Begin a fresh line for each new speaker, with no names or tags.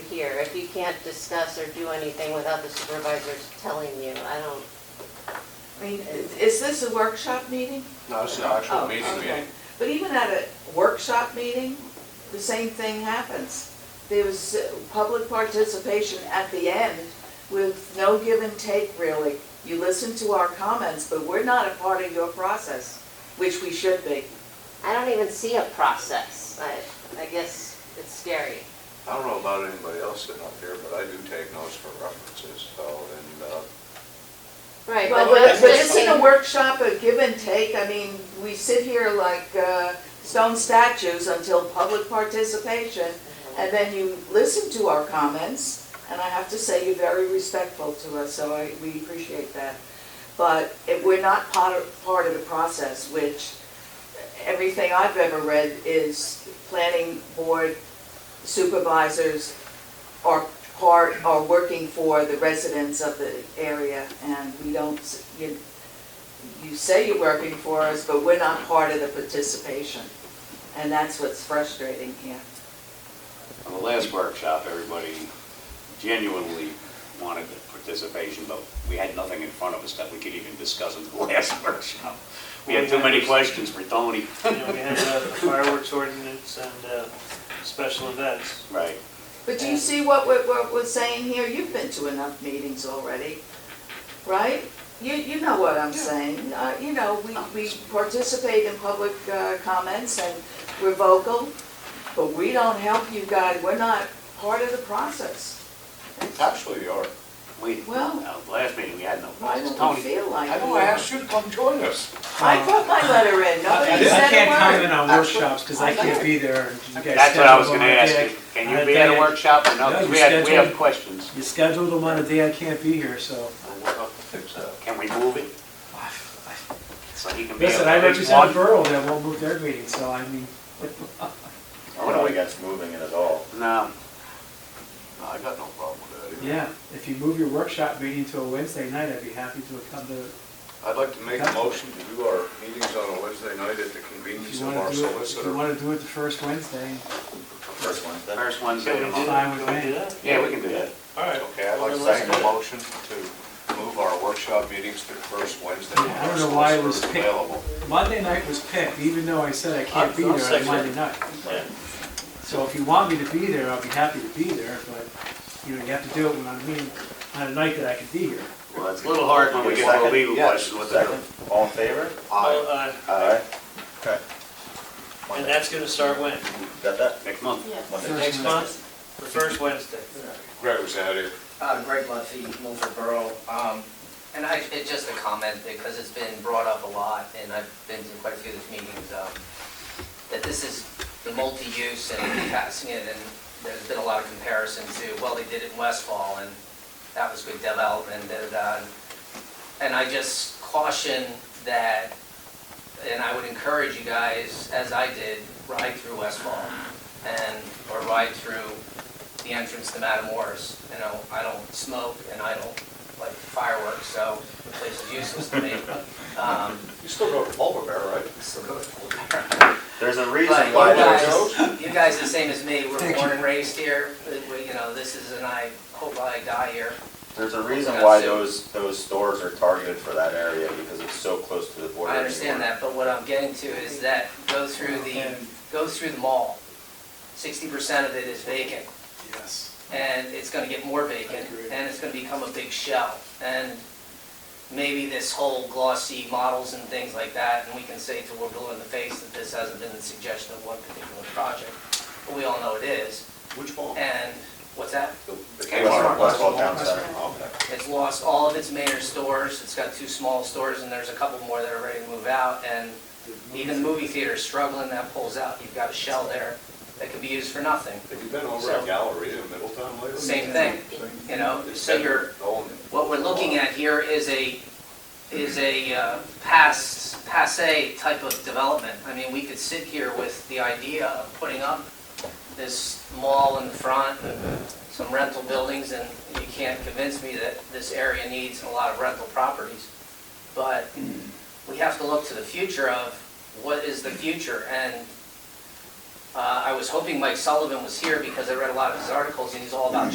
here, if you can't discuss or do anything without the supervisors telling you, I don't,
I mean, is- is this a workshop meeting?
No, this is an actual
Oh,
meeting
okay.
meeting.
But even at a workshop meeting, the same thing happens. There was uh, public participation at the end with no give and take really. You listen to our comments, but we're not a part of your process, which we should be.
I don't even see a process. I, I guess it's scary.
I don't know about anybody else sitting up here, but I do take notes for references, so, and, uh,
Right,
Well,
but
but
that's
but
just
isn't a
like,
workshop a give and take? I mean, we sit here like uh, stone statues until public participation, and then you listen to our comments, and I have to say, you're very respectful to us, so I- we appreciate that. But if we're not part of, part of the process, which everything I've ever read is planning board supervisors are part, are working for the residents of the area, and we don't, s- you, you say you're working for us, but we're not part of the participation. And that's what's frustrating here.
On the last workshop, everybody genuinely wanted the participation, but we had nothing in front of us that we could even discuss in the last workshop. We had too many questions for Tony.
You know, we had uh, fireworks ordinance and uh, special events.
Right.
But do you see what we're, what we're saying here? You've been to enough meetings already, right? You, you know what I'm saying. Uh, you know, we, we participate in public, uh, comments and we're vocal, but we don't help you guys. We're not part of the process.
actually, you are.
We,
Well-
uh, last meeting, we had no
Why
questions.
don't we
Tony,
feel like?
I know
we
I
are?
asked you to come join us.
I put my letter in. Nobody said
I
a
can't
word.
comment on workshops because I can't be there. and you guys
that's what I was
scheduled
gonna
them on a
ask
day
you. Can you
I
be at a
think-
workshop or no?
No,
'Cause
you
we had, we have
scheduled-
questions.
I- You scheduled them on a day I can't be here, so.
Can we move it? So he can be.
Listen,
at
I
least
represent a
one?
borough that won't move their meeting, so I mean,
I don't think that's moving it at all.
No.
uh, No, I got no problem with that either.
yeah. If you move your workshop meeting to a Wednesday night, I'd be happy to come to,
I'd like to make a motion to do our meetings on a Wednesday night at the
if
convenience
you
of our
want to do it, if you
solicitor.
want to do it the first Wednesday.
First one. that-
First Wednesday of the
Can we
month.
do that?
Fine with
Can we do
me.
that?
Yeah, we can do that.
All right.
Okay, I'd like to
Well, then
make a motion to move our workshop meetings to the first Wednesday.
Yeah, I don't know why it was
Solicitor
picked.
Available.
Monday night was picked, even though I said I can't be
I'll- I'll
there on
second
Monday
it.
night.
Yeah.
So if you want me to be there, I'll be happy to be there, but, you know, you have to do it when I'm meeting, on a night that I can be here.
Well, it's a little hard when we get to a
Second?
legal
Yeah,
question with the.
second. All in favor?
Aye.
Oh,
Aye.
Okay.
uh, And that's going to start when?
Got that?
Next month.
Monday.
First
Next month? The first Wednesday?
Greg was out here.
Uh, Greg Murphy, Milford Borough. Um, And I, it's just a comment because it's been brought up a lot and I've been to quite a few of these meetings, um, that this is the multi-use and passing it and there's been a lot of comparison to, well, they did it in Westfall and that was good development, da, da, da. And I just caution that, and I would encourage you guys, as I did, ride through Westfall and, or ride through the entrance to Matamoros. You know, I don't smoke and I don't like fireworks, so the place is useless to me. Um,
You still go to Pulver Bear, right?
so go to-
There's a reason why
But you
there's.
guys, you guys are the same as me, we're born and raised here, We- you know, this is, and I hope I die here.
There's a reason
Yeah,
why
so-
those, those stores are targeted for that area, because it's so close to the border.
I understand
anymore.
that, but what I'm getting to is that go through the, go through the mall. Sixty percent of it is vacant.
Yes.
and it's gonna get more vacant,
I agree.
and it's gonna become a big shell. And maybe this whole glossy models and things like that, and we can say to we're blue in the face that this hasn't been the suggestion of one particular project, but we all know it is.
Which
Uh,
mall?
And what's that?
The
Kmart,
Kmart.
Westfall Town Center.
Okay.
It's lost all of its major stores, it's got two small stores, and there's a couple more that are ready to move out, and even the movie theater is struggling, that pulls out, you've got a shell there that could be used for nothing,
Have you been over at Galleria in Middletown lately?
Same thing, you know? So you're,
Oh,
What we're looking at here is a, is a uh, past, passé type of development. I mean, we could sit here with the idea of putting up this mall in the front and some rental buildings, and you can't convince me that this area needs a lot of rental properties. But we have to look to the future of what is the future, and Uh, I was hoping Mike Sullivan was here because I read a lot of his articles and he's all about